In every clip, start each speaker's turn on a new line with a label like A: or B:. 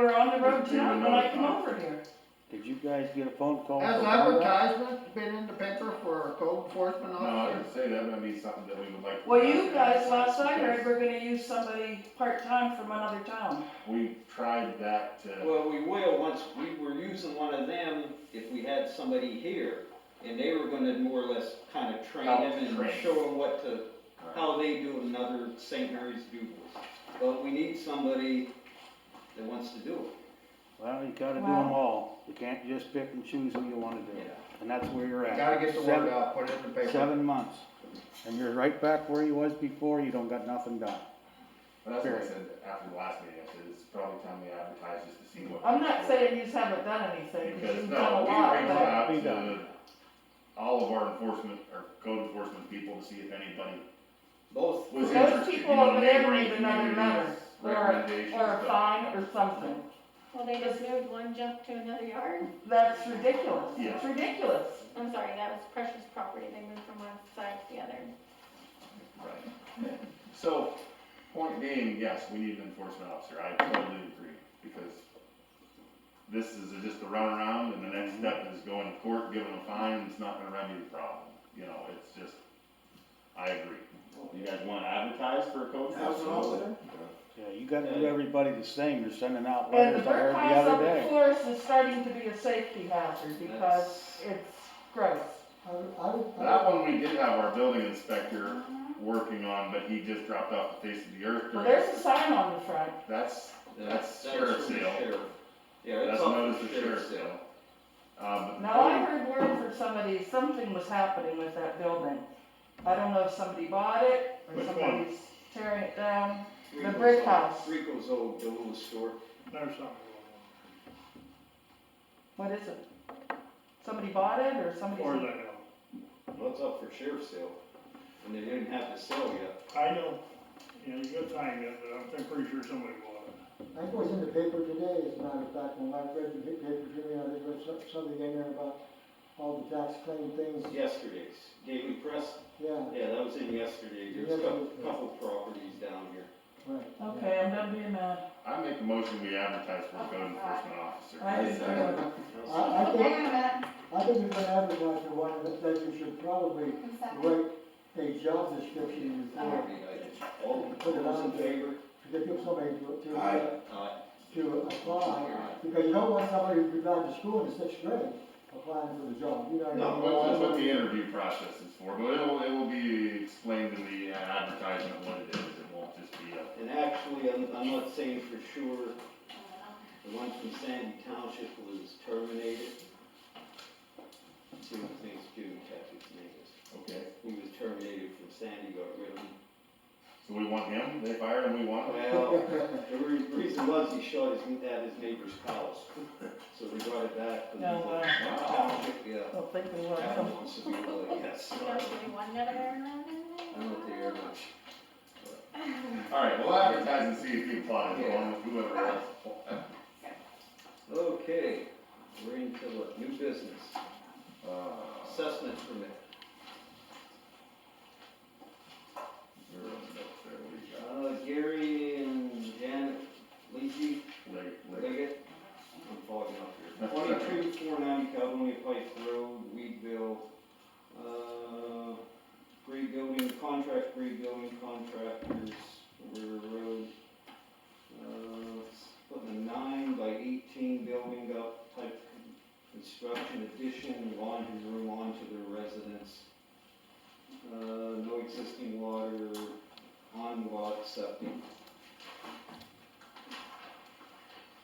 A: in town when I come over here.
B: Did you guys get a phone call?
C: Has
B: from Ira?
C: advertisement been in the paper for a code enforcement
D: No, I
C: officer?
D: would say that would be something that we would like. to
A: Well,
D: look
A: you
D: at.
A: guys last night heard
D: Yes.
A: we're gonna use somebody part-time from another town.
D: We tried that to,
E: Well, we will, once, we were using one of them, if we had somebody here, and they were gonna more or less kinda train
D: Help
E: them and
D: train.
E: show them what to, how they do it in other St. Mary's duels. But we need somebody that wants to do it.
B: Well, you gotta do
A: Wow.
B: them all. You can't just pick and choose who you wanna do. And that's where you're
C: You
B: at.
C: Gotta get the
B: Seven-
C: word out, put it in the paper.
B: Seven months. And you're right back where you was before. You don't got nothing done.
D: but that's what I
B: period.
D: said after the last meeting, I said, it's probably time we advertise just to see what.
A: I'm not saying you haven't done anything, because
D: Because,
A: you've
D: no,
A: done a
D: we
A: lot,
D: reached
A: but
D: out
B: Be
D: to
B: done.
D: all of our enforcement, or code enforcement people to see if anybody
E: Both,
D: was
A: Those
D: interested, you
A: people
D: know,
A: over there
D: neighboring
A: need another
D: communities,
A: letter, or-
D: recommendations.
A: or a
D: but-
A: fine or something.
F: Well, they just moved one junk to another yard.
A: That's ridiculous. It's
D: Yeah.
A: ridiculous.
F: I'm sorry, that was precious property. They moved from one side to the other.
D: Right. So, point being, yes, we need an enforcement officer, I totally agree, because this is just a runaround, and the next step is going to court, giving a fine, and it's not gonna remedy the problem, you know, it's just, I agree. You guys wanna advertise for a code enforcement?
B: Yeah, you gotta do everybody the same. You're sending out
A: And the
B: letters, I
A: bird
B: heard the
A: house up
B: other
A: at
B: day.
A: Forest is starting to be a safety hazard because
E: That's-
A: it's gross.
D: That one, we did have our building inspector working on, but he just dropped off the face of the earth.
A: Well, there's a sign on the front.
D: That's,
E: that's,
D: That's
E: that's
D: sheriff's
E: from the
D: sale.
E: sheriff. Yeah, it's
D: that's
E: up
D: notice
E: to
D: of sheriff's sale. Uh, but the
A: Now, I
D: code-
A: heard word from somebody, something was happening with that building. I don't know if somebody bought it or
D: Which one?
A: somebody's tearing it down. The
E: Rico's
A: brick
E: old-
A: house.
E: Rico's old duel store.
G: There's something
A: What is it? Somebody bought it or somebody?
G: going on, or they know.
E: Well, it's up for sheriff's sale, and they didn't have it sell yet.
G: I don't, you know, you gotta find it, but I'm pretty- pretty sure somebody bought it.
H: I think it was in the paper today, as a matter of fact, when I read the paper today, I think there was some- something in there about all the tax claim things,
E: Yesterday's, Daily Press,
H: yeah,
E: yeah, that was in yesterday, there's a couple, couple properties down here.
H: right. yeah.
A: Okay, I'm done being mad.
D: I make a motion, we advertise for a code enforcement officer.
A: I just,
H: I, I
I: Wait a
H: think,
I: minute,
H: I think you've been advertising for one, but that you should probably
I: one second.
H: write a job description before,
E: All those in favor?
H: to give somebody to, to,
E: Aye.
H: uh, to apply, because you don't want somebody who could drive to school in sixth grade applying for the job, you know.
D: No, well, that's what the interview process is for, but it will, it will be explained in the advertisement what it is, it won't just be a.
E: And actually, I'm, I'm not saying for sure, the one from Sandy Township was terminated. See what things Jim Cathy's name is.
D: Okay.
E: He was terminated from Sandy, got rid of him.
D: So we want him, they fire him, we want him?
E: Well, the re- reason was he shot his, at his neighbor's house, so they brought it back. to the
A: No, wow.
E: Township, yeah.
A: I don't think we want
E: That
A: some.
E: one wants to be really, yes.
F: You guys doing one another around in
E: I don't think very
F: there?
E: much.
D: Alright, we'll advertise and see if he applies, along with whoever else.
E: Okay, we're into what, new business,
D: Uh,
E: assessment permit.
D: there was no- there we got
E: Uh, Gary and Janet Leachy,
D: Leg- leg-
E: Liggett, I'm fogging up here. Twenty-two, four ninety Caledonia Pike Road, Weedville. Uh, rebuilding, contract rebuilding contractors, River Road. Uh, it's putting a nine by eighteen building up type construction addition, laundry room onto their residence. Uh, no existing water, on lot septic.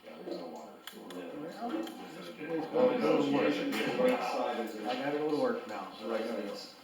D: yeah, there's no water, so we're- Oh,
B: It's gonna be a little worse.
E: Right side is the
B: I gotta go to work now, so I gotta go.
E: residence.